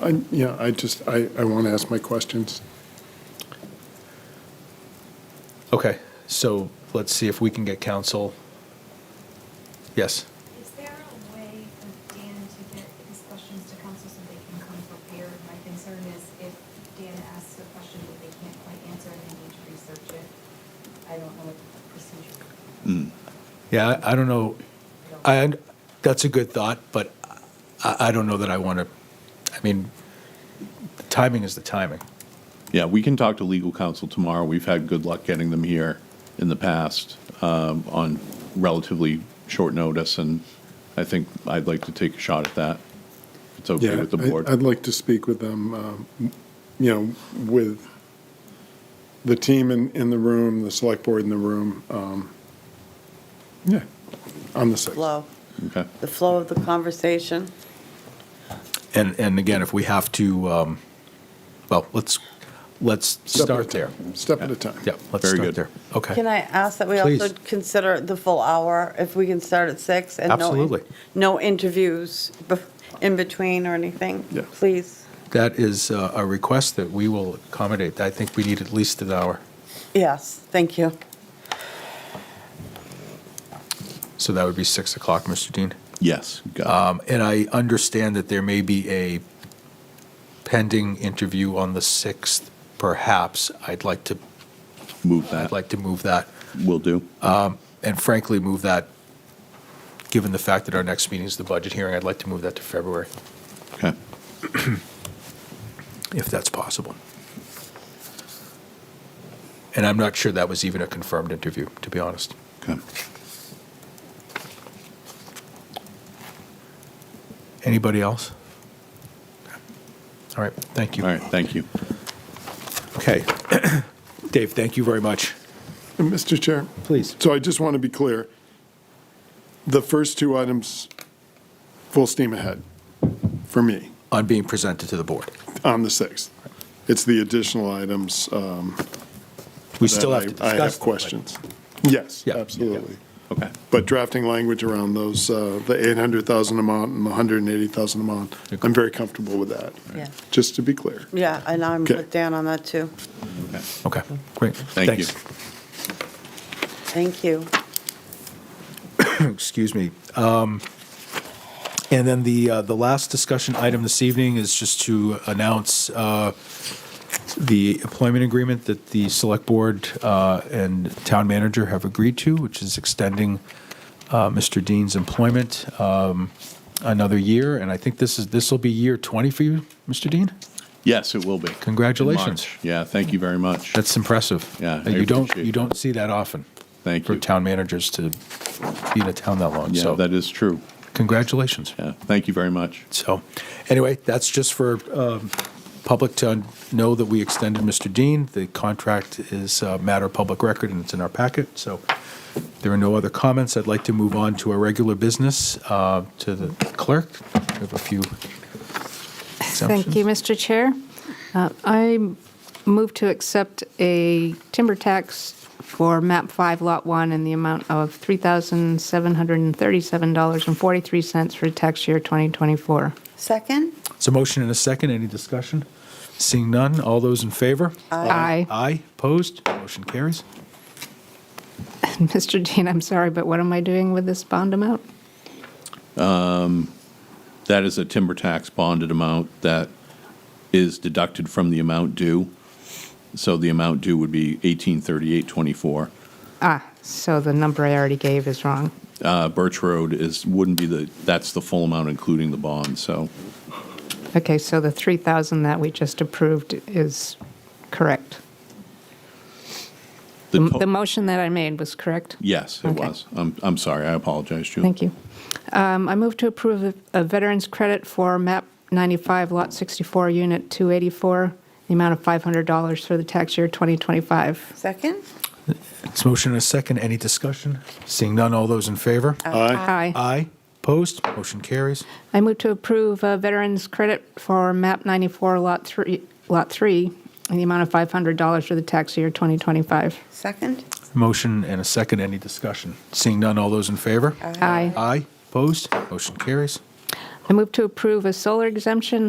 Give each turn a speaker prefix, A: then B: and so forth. A: I, yeah, I just, I, I want to ask my questions.
B: Okay, so let's see if we can get counsel. Yes.
C: Is there a way for Dan to get his questions to council so they can come prepared? My concern is if Dan asks a question that they can't quite answer and they need to research it, I don't know what the procedure.
B: Yeah, I, I don't know. I, that's a good thought, but I, I don't know that I want to. I mean, the timing is the timing.
D: Yeah, we can talk to legal counsel tomorrow. We've had good luck getting them here in the past um, on relatively short notice, and I think I'd like to take a shot at that. If it's okay
A: Yeah,
D: with the
A: I-
D: board.
A: I'd like to speak with them, um, you know, with the team in, in the room, the select board in the room. um, Yeah, on the 6th.
E: flow,
D: Okay.
E: the flow of the conversation.
B: And and again, if we have to, um, well, let's let's start there.
A: Step at a time.
B: Yeah, let's
D: Very
B: start
D: good.
B: there. Okay.
E: Can I ask that we also
B: Please.
E: consider the full hour, if we can start at six? and no-
B: Absolutely.
E: No interviews bef- in between or anything?
A: Yeah.
E: Please.
B: that is uh, a request that we will accommodate. I think we need at least an hour.
E: Yes, thank you.
B: So that would be six o'clock, Mr. Dean.
D: Yes. got it.
B: Um, and I understand that there may be a pending interview on the sixth. Perhaps I'd like to
D: Move
B: I'd
D: that.
B: like Uh, to move that,
D: Will do.
B: and frankly, move that. Given the fact that our next meeting is the budget hearing, I'd like to move that to February,
D: Okay.
B: if that's possible. And I'm not sure that was even a confirmed interview, to be honest.
D: Okay.
B: Anybody else? All right, thank you.
D: All right. Thank you.
B: Okay. Dave, thank you very much.
A: And Mr. Chair?
B: Please.
A: So I just want to be clear. The first two items, full steam ahead for me
B: On being presented to the board.
A: on the 6th. It's the additional items um, that
B: We still have
A: I-
B: to discuss.
A: I have
B: them, but-
A: questions. Yes,
B: Yeah.
A: absolutely.
D: Okay.
A: But drafting language around those, uh, the 800,000 amount and the 180,000 amount, I'm very comfortable with that,
E: Yeah. Uh,
A: just to be clear.
E: Yeah, and I'm
A: Okay.
E: with Dan on that, too.
D: Okay.
B: Okay, great.
D: Thank you.
B: Thanks.
E: Thank you.
B: excuse me. Um, And then the, uh, the last discussion item this evening is just to announce uh, the employment agreement that the Select Board uh, and Town Manager have agreed to, which is extending uh, Mr. Dean's employment um, another year. And I think this is, this will be year 20 for you, Mr. Dean?
D: Yes, it will be. In
B: Congratulations.
D: March. Yeah. Thank you very much.
B: That's impressive.
D: Yeah, I
B: You don't,
D: appreciate
B: you don't see that often.
D: Thank
B: For
D: you.
B: town managers to be in a town that long.
D: yeah,
B: So
D: that is true.
B: congratulations.
D: Yeah. Thank you very much.
B: So, anyway, that's just for um, public to know that we extended Mr. Dean. The contract is a matter of public record, and it's in our packet. So there are no other comments. I'd like to move on to our regular business, uh, to the clerk. We have a few
F: Thank you, Mr. Chair. Uh, I move to accept a timber tax for MAP 5 Lot 1 in the amount of $3,737.43 for tax year 2024.
E: Second?
B: So motion and a second. Any discussion? Seeing none, all those in favor?
F: Aye.
B: Aye, opposed? Motion carries.
F: Mr. Dean, I'm sorry, but what am I doing with this bond amount?
D: That is a timber tax bonded amount that is deducted from the amount due. So the amount due would be eighteen thirty-eight twenty-four.
F: Ah, so the number I already gave is wrong.
D: Uh, Birch Road is, wouldn't be the, that's the full amount including the bond, so,
F: Okay, so the 3,000 that we just approved is correct.
D: the
F: The
D: to-
F: the motion that I made was correct?
D: yes, it
F: Okay.
D: was. I'm, I'm sorry, I apologize, Julie.
F: Thank you. Um, I move to approve a- a veteran's credit for MAP 95, Lot 64, Unit 284, the amount of $500 for the tax year 2025.
E: Second?
B: It's motion and a second. Any discussion? Seeing none, all those in favor?
A: Aye.
F: Aye.
B: Aye, opposed? Motion carries.
F: I move to approve a veteran's credit for MAP 94, Lot 3, Lot 3, in the amount of $500 for the tax year 2025.
E: Second?
B: Motion and a second. Any discussion? Seeing none, all those in favor?
F: Aye.
B: Aye, opposed? Motion carries.
F: I move to approve a solar exemption